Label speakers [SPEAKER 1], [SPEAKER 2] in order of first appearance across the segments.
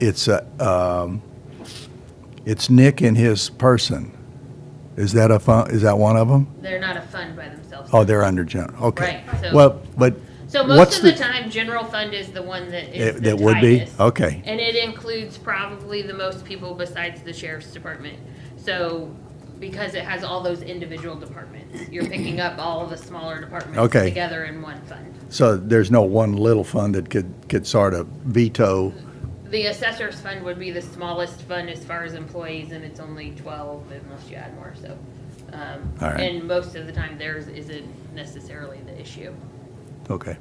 [SPEAKER 1] it's a, um, it's Nick and his person. Is that a fun, is that one of them?
[SPEAKER 2] They're not a fund by themselves.
[SPEAKER 1] Oh, they're under general, okay.
[SPEAKER 2] Right, so-
[SPEAKER 1] Well, but
[SPEAKER 2] So
[SPEAKER 1] what's
[SPEAKER 2] most of the
[SPEAKER 1] the-
[SPEAKER 2] time, general fund is the one
[SPEAKER 1] it-
[SPEAKER 2] that is the
[SPEAKER 1] that would be,
[SPEAKER 2] tightest.
[SPEAKER 1] okay.
[SPEAKER 2] And it includes probably the most people besides the sheriff's department. So, because it has all those individual departments, you're picking up all the smaller departments
[SPEAKER 1] Okay.
[SPEAKER 2] together in one fund.
[SPEAKER 1] So there's no one little fund that could, could sort of veto,
[SPEAKER 2] The assessor's fund would be the smallest fund as far as employees, and it's only twelve unless you add more, so. um,
[SPEAKER 1] All right.
[SPEAKER 2] And most of the time, theirs isn't necessarily the issue.
[SPEAKER 1] okay.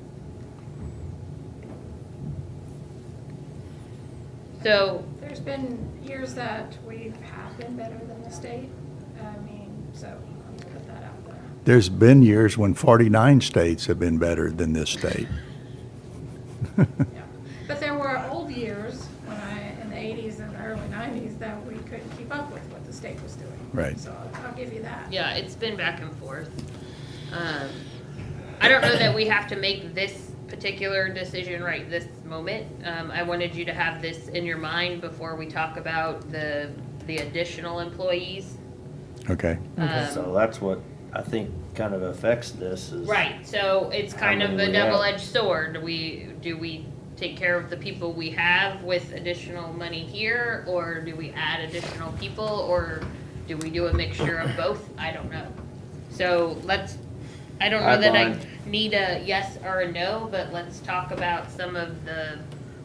[SPEAKER 2] So,
[SPEAKER 3] There's been years that we have been better than the state. I mean, so I'm gonna put that out there.
[SPEAKER 1] There's been years when 49 states have been better than this state.
[SPEAKER 3] Yeah. But there were old years when I, in the eighties and the early nineties, that we couldn't keep up with what the state was doing.
[SPEAKER 1] Right.
[SPEAKER 3] So I'll- I'll give you that.
[SPEAKER 2] Yeah, it's been back and forth. Um, I don't know that we have to make this particular decision right this moment. Um, I wanted you to have this in your mind before we talk about the, the additional employees.
[SPEAKER 1] Okay,
[SPEAKER 2] Um,
[SPEAKER 4] So that's what I think kind of affects this is.
[SPEAKER 2] Right, so it's
[SPEAKER 4] How
[SPEAKER 2] kind of
[SPEAKER 4] many
[SPEAKER 2] a
[SPEAKER 4] we have.
[SPEAKER 2] double-edged sword. Do we, do we take care of the people we have with additional money here? Or do we add additional people, or do we do a mixture of both? I don't know. So let's, I don't know that I
[SPEAKER 4] I'd
[SPEAKER 2] need a yes or a no, but let's talk about some of the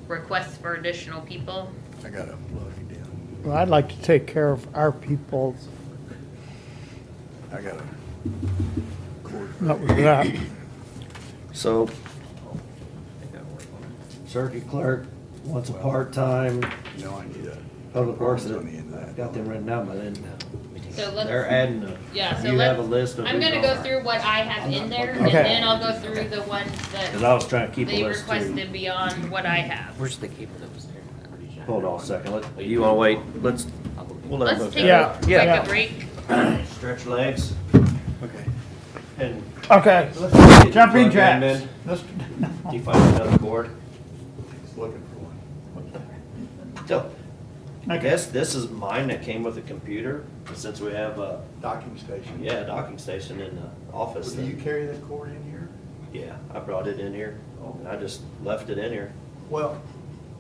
[SPEAKER 2] requests for additional people.
[SPEAKER 1] I gotta plug it in.
[SPEAKER 5] Well, I'd like to take care of our people,
[SPEAKER 1] I gotta.
[SPEAKER 5] not with that.
[SPEAKER 4] So. Circuit clerk wants a part-time,
[SPEAKER 1] No, I need a.
[SPEAKER 4] public works,
[SPEAKER 1] On the end of that.
[SPEAKER 4] I've got them written out, but then
[SPEAKER 2] So
[SPEAKER 4] they're
[SPEAKER 2] let's,
[SPEAKER 4] adding them.
[SPEAKER 2] yeah, so
[SPEAKER 4] You have a
[SPEAKER 2] let's,
[SPEAKER 4] list of.
[SPEAKER 2] I'm
[SPEAKER 4] who's
[SPEAKER 2] gonna go
[SPEAKER 4] on.
[SPEAKER 2] through what I have in there, and
[SPEAKER 5] Okay.
[SPEAKER 2] then I'll go through the ones that.
[SPEAKER 4] Cause I was trying to keep
[SPEAKER 2] They
[SPEAKER 4] a list too.
[SPEAKER 2] requested beyond what I have.
[SPEAKER 6] Where's the cable that was there?
[SPEAKER 4] Hold on a second, let, you wanna wait, let's, we'll
[SPEAKER 2] Let's
[SPEAKER 4] let them
[SPEAKER 2] take
[SPEAKER 4] look
[SPEAKER 2] a
[SPEAKER 5] Yeah,
[SPEAKER 2] quick
[SPEAKER 5] yeah.
[SPEAKER 2] break.
[SPEAKER 4] at it. Stretch legs
[SPEAKER 1] Okay.
[SPEAKER 4] and.
[SPEAKER 5] Okay,
[SPEAKER 4] let's get you
[SPEAKER 5] jumping
[SPEAKER 4] plugged in,
[SPEAKER 5] jacks.
[SPEAKER 4] man.
[SPEAKER 5] Let's-
[SPEAKER 4] Do you find another board?
[SPEAKER 1] Looking for one.
[SPEAKER 4] So, I
[SPEAKER 5] Okay.
[SPEAKER 4] guess this is mine that came with the computer, since we have a,
[SPEAKER 1] Docking station.
[SPEAKER 4] yeah, docking station in the office.
[SPEAKER 1] Do you
[SPEAKER 4] then.
[SPEAKER 1] carry that cord in here?
[SPEAKER 4] Yeah, I brought it in here,
[SPEAKER 1] Oh.
[SPEAKER 4] and I just left it in here.
[SPEAKER 1] Well.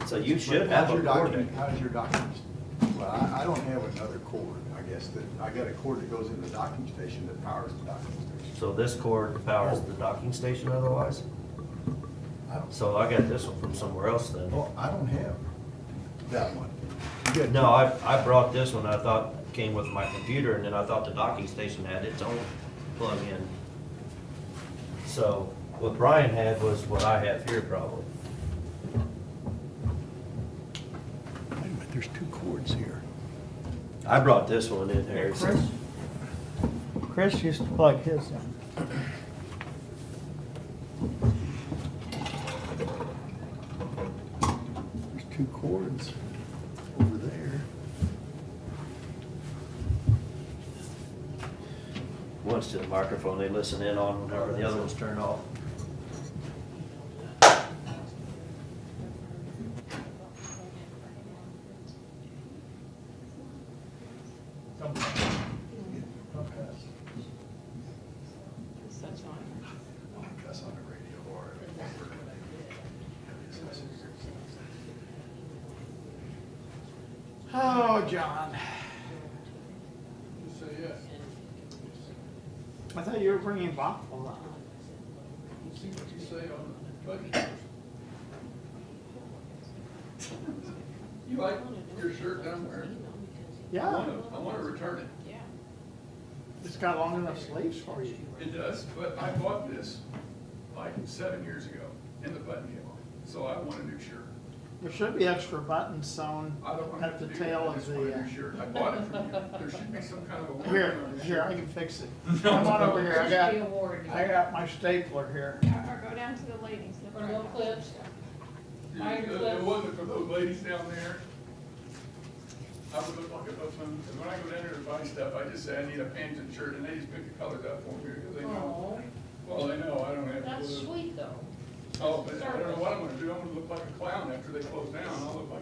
[SPEAKER 4] So you should
[SPEAKER 1] how's
[SPEAKER 4] have
[SPEAKER 1] your
[SPEAKER 4] a cord.
[SPEAKER 1] document- How's your documents? Well, I, I don't have another cord, I guess, that, I got a cord that goes in the docking station that powers the docking station.
[SPEAKER 4] So this cord powers the docking station otherwise?
[SPEAKER 1] I don't,
[SPEAKER 4] So I got this one from somewhere else then.
[SPEAKER 1] well, I don't have that one. You got-
[SPEAKER 4] No, I, I brought this one, I thought came with my computer, and then I thought the docking station had its own plug-in. So what Brian had was what I have here probably.
[SPEAKER 1] Wait a minute, there's two cords here.
[SPEAKER 4] I brought this one in here. so-
[SPEAKER 5] Chris, Chris used to plug his in.
[SPEAKER 1] There's two cords over there.
[SPEAKER 4] One's to the microphone, they listen in on whenever the other one's turned off.
[SPEAKER 1] Like us on the radio or. Oh, John.
[SPEAKER 5] I thought you were bringing baklava.
[SPEAKER 7] You like your shirt that I'm wearing? I
[SPEAKER 5] Yeah,
[SPEAKER 7] wanna- I wanna return it.
[SPEAKER 5] it's got long enough sleeves for you.
[SPEAKER 7] It does, but I bought this like seven years ago and the button came off, so I want a new shirt.
[SPEAKER 5] There should be extra buttons sewn
[SPEAKER 7] I don't want to
[SPEAKER 5] at
[SPEAKER 7] have
[SPEAKER 5] the
[SPEAKER 7] to do that,
[SPEAKER 5] tail of
[SPEAKER 7] I just want
[SPEAKER 5] the,
[SPEAKER 7] a
[SPEAKER 5] uh,
[SPEAKER 7] new shirt. I bought it from you. There should be some kind of a. warranty
[SPEAKER 5] here,
[SPEAKER 7] on it.
[SPEAKER 5] here, I can fix it. Come on over here, I got, I got my stapler here.
[SPEAKER 3] Or or go down to the ladies.
[SPEAKER 8] Or little clips.
[SPEAKER 7] It- It it wasn't for those ladies down there. I would look like a buffoon, and when I go down there to buy stuff, I just say I need a pants and shirt, and they just pick the colors up for me, because they know.
[SPEAKER 8] Oh,
[SPEAKER 7] Well, they know, I don't have.
[SPEAKER 8] that's
[SPEAKER 7] blue.
[SPEAKER 8] sweet though.
[SPEAKER 7] Oh, but I don't know what I'm gonna do, I'm gonna look like a clown after they close down, I'll look like